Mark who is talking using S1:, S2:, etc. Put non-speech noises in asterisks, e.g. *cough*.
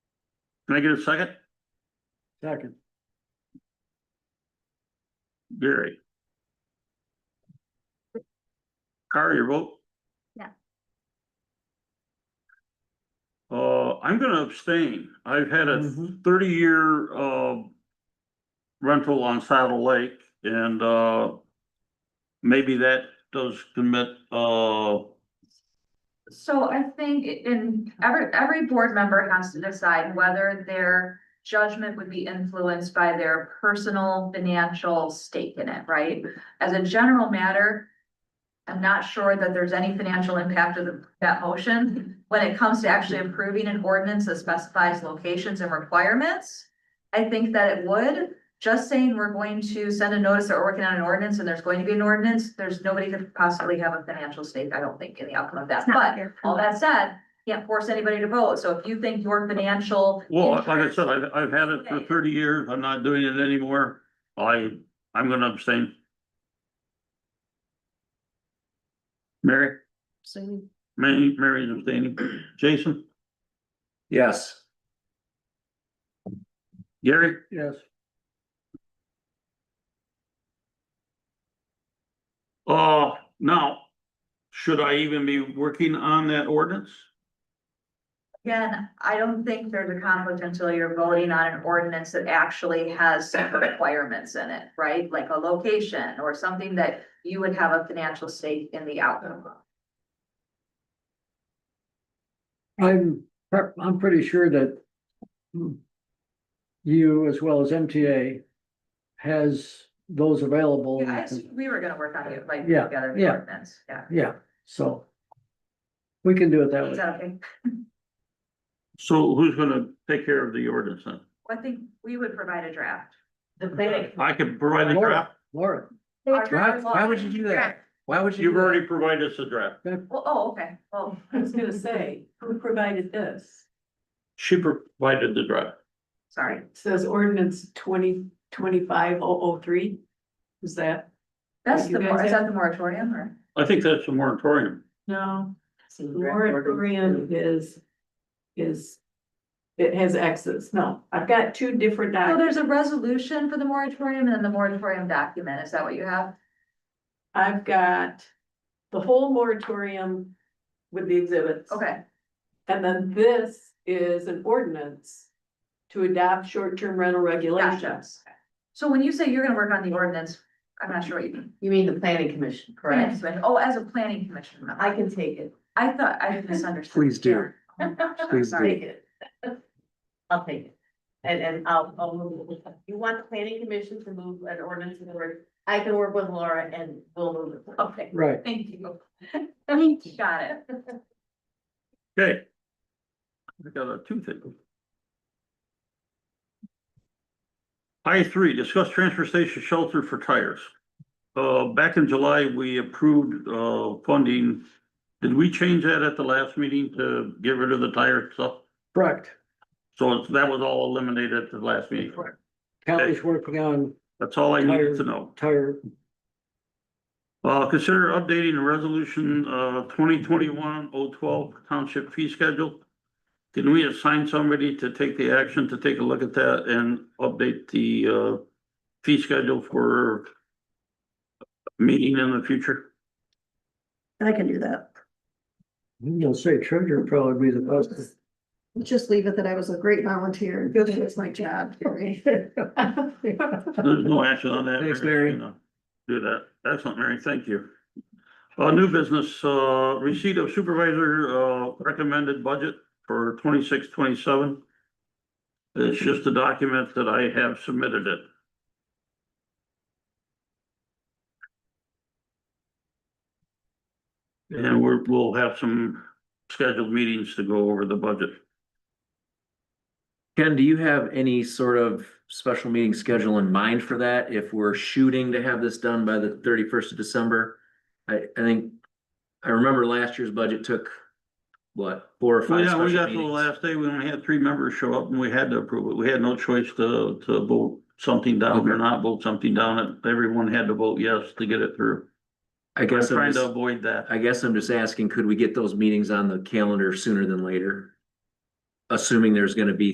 S1: Can I get a second?
S2: Second.
S1: Gary? Carl, your vote?
S3: Yeah.
S1: Uh, I'm gonna abstain. I've had a thirty-year, uh, rental on Saddle Lake and, uh, maybe that does commit, uh,
S3: So I think i- in every, every board member has to decide whether their judgment would be influenced by their personal financial stake in it, right? As a general matter, I'm not sure that there's any financial impact of the- that motion. When it comes to actually approving an ordinance that specifies locations and requirements, I think that it would. Just saying we're going to send a notice that we're working on an ordinance and there's going to be an ordinance, there's nobody could possibly have a financial stake, I don't think, in the outcome of that.
S4: It's not
S3: But
S4: fair.
S3: all that said, can't force anybody to vote, so if you think your financial.
S1: well, like I
S3: interest-
S1: said, I've, I've had it for thirty years. I'm not doing it anymore. I, I'm gonna abstain. Mary?
S4: Same.
S1: Mary, Mary's abstaining. Jason,
S2: Yes.
S1: Gary,
S2: Yes.
S1: uh, now, should I even be working on that ordinance?
S3: Again, I don't think there's a conflict until you're voting on an ordinance that actually
S1: *coughs*
S3: has some requirements in it, right? Like a location or something that you would have a financial stake in the outcome. of.
S2: I'm, pre- I'm pretty sure that hmm, you as well as MTA has those
S1: Oh,
S2: available.
S3: Yeah, I assume we were gonna work on it, like,
S2: Yeah,
S3: together the
S2: yeah.
S3: ordinance, yeah.
S2: Yeah, so we can do it that
S3: Is
S2: way.
S3: that okay?
S1: So who's gonna take care of the ordinance then?
S3: Well, I think we would provide a draft.
S5: The planning,
S1: I can provide a
S2: Laura,
S1: draft.
S2: Laura,
S3: Our-
S6: Why, why would you do that? Why would you?
S1: You've already provided us a draft.
S3: Well, oh, okay, well, *laughs*
S5: I was gonna say, who provided this?
S1: She provided the draft.
S3: sorry,
S5: It Says ordinance twenty twenty-five oh oh three. Is that,
S3: that's
S5: You
S3: the,
S5: guys
S3: mor- is
S5: have-
S3: that the moratorium or?
S1: I think that's a moratorium.
S5: no, moratorium
S6: Moratorium.
S5: is, is. It has X's, no, I've got two different
S3: So
S5: documents,
S3: there's a resolution for the moratorium and then the moratorium document, is that what you have?
S5: I've got. The whole moratorium with the exhibits.
S3: Okay,
S5: And then this is an ordinance to adopt short-term rental
S3: gotcha.
S5: regulations.
S3: So when you say you're gonna work on the ordinance, I'm not sure what you mean.
S6: You mean the planning commission,
S3: Planning
S6: correct?
S3: commission. Oh, as a planning commission member.
S6: I can take it,
S3: I thought I misunderstood.
S6: Please do.
S3: Yeah. Oh my gosh, I'm
S6: Please
S3: sorry.
S6: take it. *laughs* I'll take it. And, and I'll, I'll move, it. you want the planning commission to move an ordinance in the word, I can work with Laura and we'll move it.
S3: Okay,
S2: right.
S3: thank you.
S6: Thank
S3: Got it.
S1: Okay. I got a toothache. I three, discuss transfer station shelter for tires. Uh, back in July, we approved, uh, funding. Did we change that at the last meeting to get rid of the tire stuff?
S2: Correct.
S1: So it's- that was all eliminated at the last meeting.
S2: County's working on
S1: That's all I needed to know.
S2: tire,
S1: Uh, consider updating the resolution, uh, twenty twenty-one oh twelve township fee schedule. Can we assign somebody to take the action to take a look at that and update the, uh, fee schedule for meeting in the future?
S7: I can do that.
S2: you'll say treasurer probably be the best.
S7: Just leave it that I was a great volunteer and good at my
S3: *laughs*
S7: job. *laughs* Terry.
S1: *laughs* There's no action on that.
S2: Thanks, Mary.
S1: Do that. Excellent, Mary. Thank you. Uh, new business, uh, receipt of supervisor, uh, recommended budget for twenty-six, twenty-seven. It's just a document that I have submitted it. And we're, we'll have some scheduled meetings to go over the budget.
S6: Ken, do you have any sort of special meeting schedule in mind for that? If we're shooting to have this done by the thirty-first of December? I, I think, I remember last year's budget took, what, four or
S1: Well,
S6: five
S1: yeah,
S6: special
S1: we got to the
S6: meetings?
S1: last day, we only had three members show up and we had to approve it. We had no choice to, to vote something down or
S6: Okay.
S1: not vote something down. Everyone had to vote yes to get it through.
S6: I
S1: I'm
S6: guess I'm
S1: trying to
S6: just,
S1: avoid that.
S6: I guess I'm just asking, could we get those meetings on the calendar sooner than later? Assuming there's gonna be